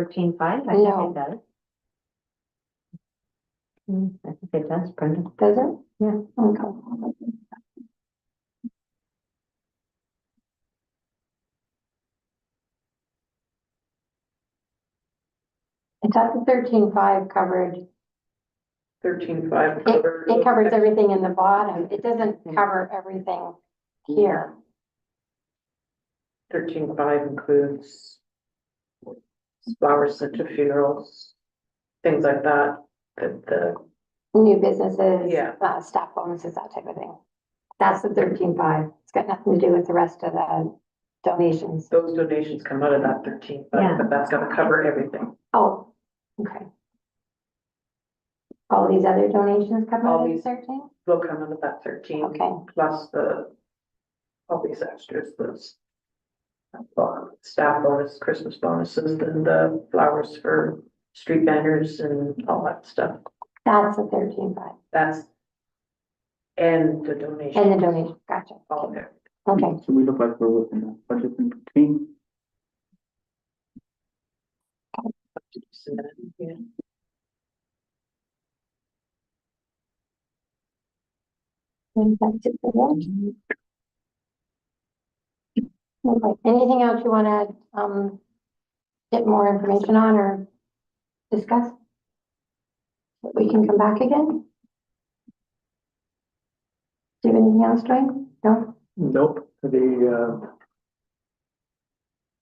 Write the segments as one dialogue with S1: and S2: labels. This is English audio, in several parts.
S1: Thirteen five, I
S2: No.
S1: think it does. Hmm, I think it does, Brenda.
S2: Does it?
S1: Yeah.
S2: Okay. I thought the thirteen five covered,
S3: Thirteen five
S2: it,
S3: covered.
S2: it covers everything in the bottom. It doesn't
S3: Mm.
S2: cover everything here.
S3: Thirteen five includes flowers sent to funerals, things like that, that the,
S2: New businesses,
S3: Yeah.
S2: uh, staff bonuses, that type of thing. That's the thirteen five. It's got nothing to do with the rest of the donations.
S3: those donations come out of that thirteen
S1: Yeah.
S3: five, but that's gonna cover everything.
S2: Oh, okay. All these other donations come
S3: All
S2: out of
S3: these-
S2: thirteen?
S3: Will come out of that thirteen.
S2: Okay.
S3: Plus the, all these extras, those uh, staff bonus, Christmas bonuses, and the flowers for street banners and all that stuff.
S2: That's a thirteen five,
S3: That's and the donation.
S2: and the donation, gotcha,
S3: All there.
S2: okay,
S4: So we look like we're within the budget in between.
S3: Yeah.
S2: And that's it for that. Okay, anything else you wanna, um, get more information on or discuss? That We can come back again? Do you have anything else, Dwayne? No?
S5: Nope, the, uh,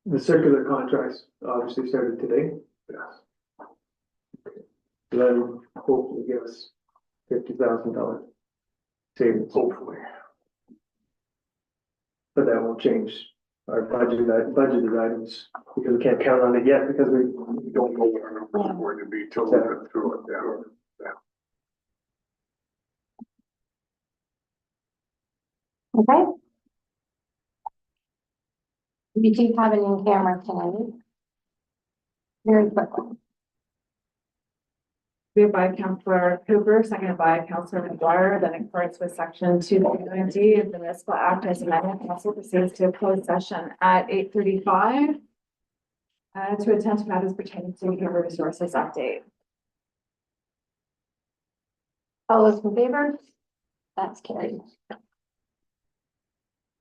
S5: the circular contracts obviously started today. Yes. That will hopefully give us fifty thousand dollar savings. Hopefully. But that will change our budget, that budgeted items, because we can't count on it yet, because we we don't know what our
S2: Yeah.
S5: going to be till we get through it, yeah.
S2: Okay. We do have it in camera tonight. Very quickly.
S6: Moved by Counselor Cooper, seconded by Counselor McGuire, that in accordance with section two point D of the municipal act as amended, council proceeds to a closed session at eight thirty-five uh, to attend to matters pertaining to human resources update.
S2: All those in favor? That's carried.